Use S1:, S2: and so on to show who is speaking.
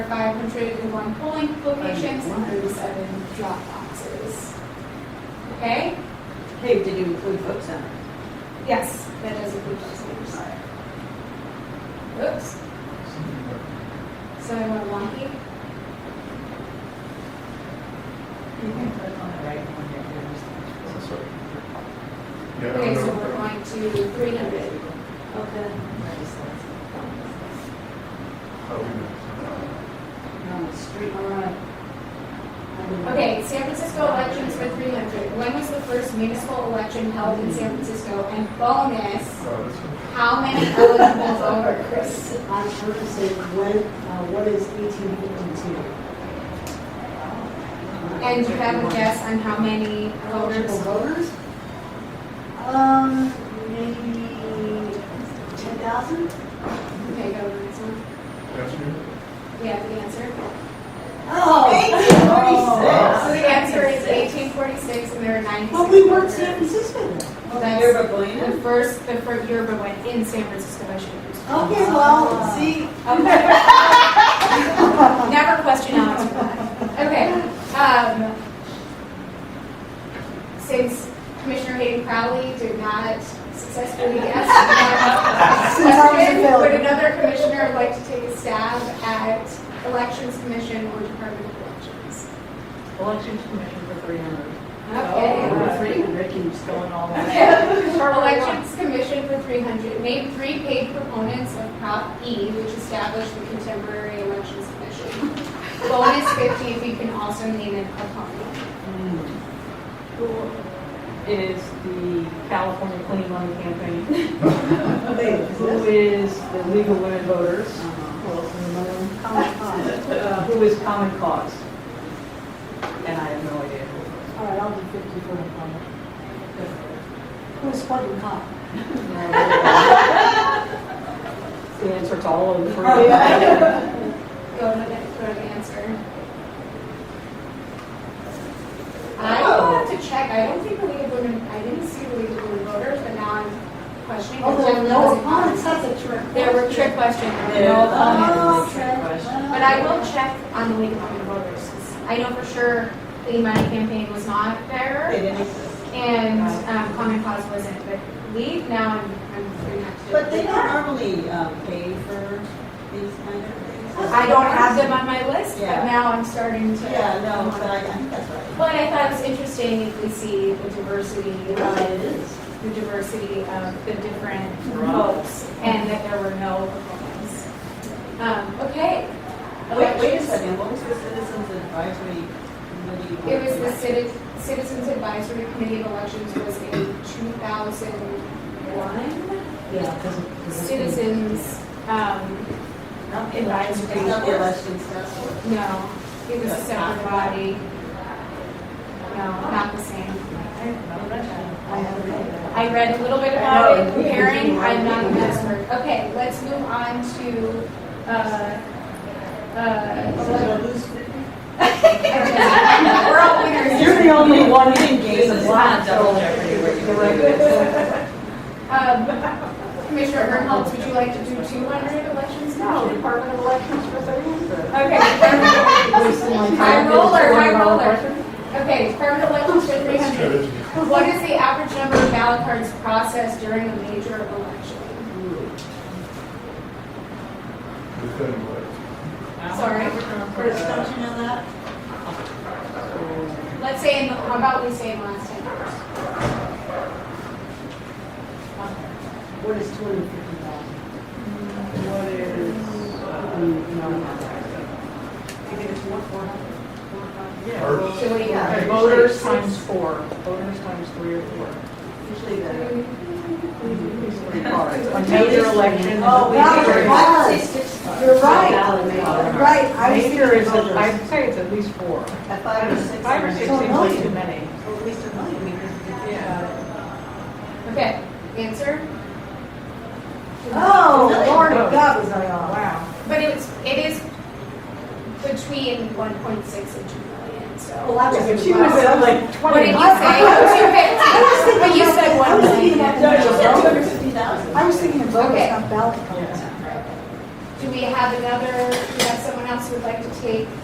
S1: Fire control in one polling location,
S2: Right.
S1: thirty-seven drop boxes. Okay?
S2: Hey, did you include vote center?
S1: Yes, that does include those numbers. Oops, so I went wonky.
S2: You can click on the right one there.
S3: That's right. Yeah,
S1: Okay, so
S3: I'm
S1: we're
S3: gonna-
S1: going to three hundred of the,
S3: oh, we Oh, know.
S2: On the street, all right.
S1: okay, San Francisco elections were three hundred. When was the first municipal election held in San Francisco? And bonus,
S3: Oh, that's right.
S1: how many eligible voters?
S4: I'm sure to say, when, uh, what is eighteen fifty-two?
S1: And you have a guess on how many
S4: Eligible
S1: voters?
S4: voters? Um, maybe ten thousand?
S1: Okay, go to the next one.
S3: That's you?
S1: Yeah, the answer.
S4: Oh!
S3: Wow.
S1: oh. So the answer is eighteen forty-six, and there are ninety-six.
S4: But we weren't San
S1: voters.
S4: Francisco then.
S1: Well, that's the first, the first year, but went in San Francisco, I should have
S4: Okay, well, see,
S1: used. Okay. Never question Alex for that. Okay, um, since Commissioner Hayden Crowley did not successfully guess. the
S4: Since I was
S1: question,
S4: available.
S1: Would another commissioner like to take a stab at Elections Commission or Department of Elections?
S2: Elections commission for three hundred.
S1: Okay.
S2: Three hundred, keeps going all the way.
S1: Our elections commission for three hundred, named three paid proponents of Prop E, which established the contemporary elections commission. Bonus fifty if you can also name an opponent.
S5: is the California Clean Money Campaign,
S4: wait, is
S5: who
S4: this?
S5: is the League of Women Voters,
S4: Comic Con.
S5: uh, who is Common Cause. And I have no idea who
S4: All right, I'll do fifty for the comic. Who's fucking cop?
S5: it was. The answer to all of the three. I
S1: Go to the, go to the answer. I will have to check, I don't think the League of Women, I didn't see the League of Women voters, but now I'm questioning.
S4: Oh,
S1: because I
S4: there
S1: know
S4: were no
S1: it's-
S4: opponents, that's a trick.
S1: There were trick questions, there were no opponents.
S4: Oh,
S5: Opponents.
S4: trick.
S1: But I will check on the League of Women Voters. 'cause I know for sure the money campaign was not there and um, Common Cause wasn't, but League, now I'm, I'm figuring out. to-
S6: But they don't normally um, pay for these kind of things.
S1: I don't have them on my list, but
S6: Yeah.
S1: now I'm starting to.
S6: Yeah, no, but I, I think that's right.
S1: Well, and I thought it was interesting if we see the diversity
S6: It
S1: of,
S6: is.
S1: the diversity of the different votes and that there were no proponents. Um, okay.
S6: Wait, wait a second, what was the Citizens Advisory Committee?
S1: It was the Citi- Citizens Advisory Committee of Elections was in 2001.
S2: Yeah, because
S1: Citizens, um,
S6: Not the
S1: Advisory.
S6: election- Not the election stuff.
S1: no, it was a separate body. No, not the same.
S4: I haven't read that.
S1: I read a little bit about it, comparing, I'm not an expert. Okay, let's move on to, uh, uh, we're all winners.
S5: You're the only one in
S6: This is not double jeopardy where you-
S1: Um, Commissioner Hermholtz, would you like to do 200 elections?
S2: No, Oh, Department of Elections for three hundred.
S1: Okay.
S2: Wasting my time.
S1: High roller, high
S2: Department of
S1: roller.
S2: Elections.
S1: Okay, permanent elections for three hundred.
S3: Strategy.
S1: What is the average number of ballot cards processed during a major election?
S3: Good thing, but-
S1: Sorry.
S6: First function on that?
S1: Let's say, in the- how about we say in the last ten years?
S4: What is two hundred fifty thousand?
S2: What is, uh,
S4: I think it's one, four hundred.
S2: yeah,
S3: Or-
S2: well,
S1: So what do you got?
S2: okay, Voters times four, voters times three or four.
S6: Usually the.
S2: It's pretty hard. A major election.
S4: Oh, we
S2: Major
S4: did.
S2: is-
S4: Wow. You're right,
S2: Valid.
S4: right, I was
S2: Major
S4: thinking
S2: is,
S4: voters.
S2: I'd say it's at least four.
S6: At five or six.
S2: Five or six
S4: So
S2: seems like
S4: no.
S2: too many.
S6: Or At least a million, because if you think about
S1: Okay, answer?
S4: Oh, Lord,
S2: Oh.
S4: that was I off.
S2: Wow.
S1: But it's, it is between one point six and two million, so.
S4: Well, that was.
S2: She was at like
S1: What did you say?
S2: 20.
S1: Two fifty. But you said
S4: I
S1: one
S4: was thinking
S1: million.
S4: about the
S6: it.
S4: voters.
S6: fifty thousand.
S4: I was thinking of voters,
S1: Okay.
S4: not ballot cards.
S1: Do we have another, we have someone else who would like to take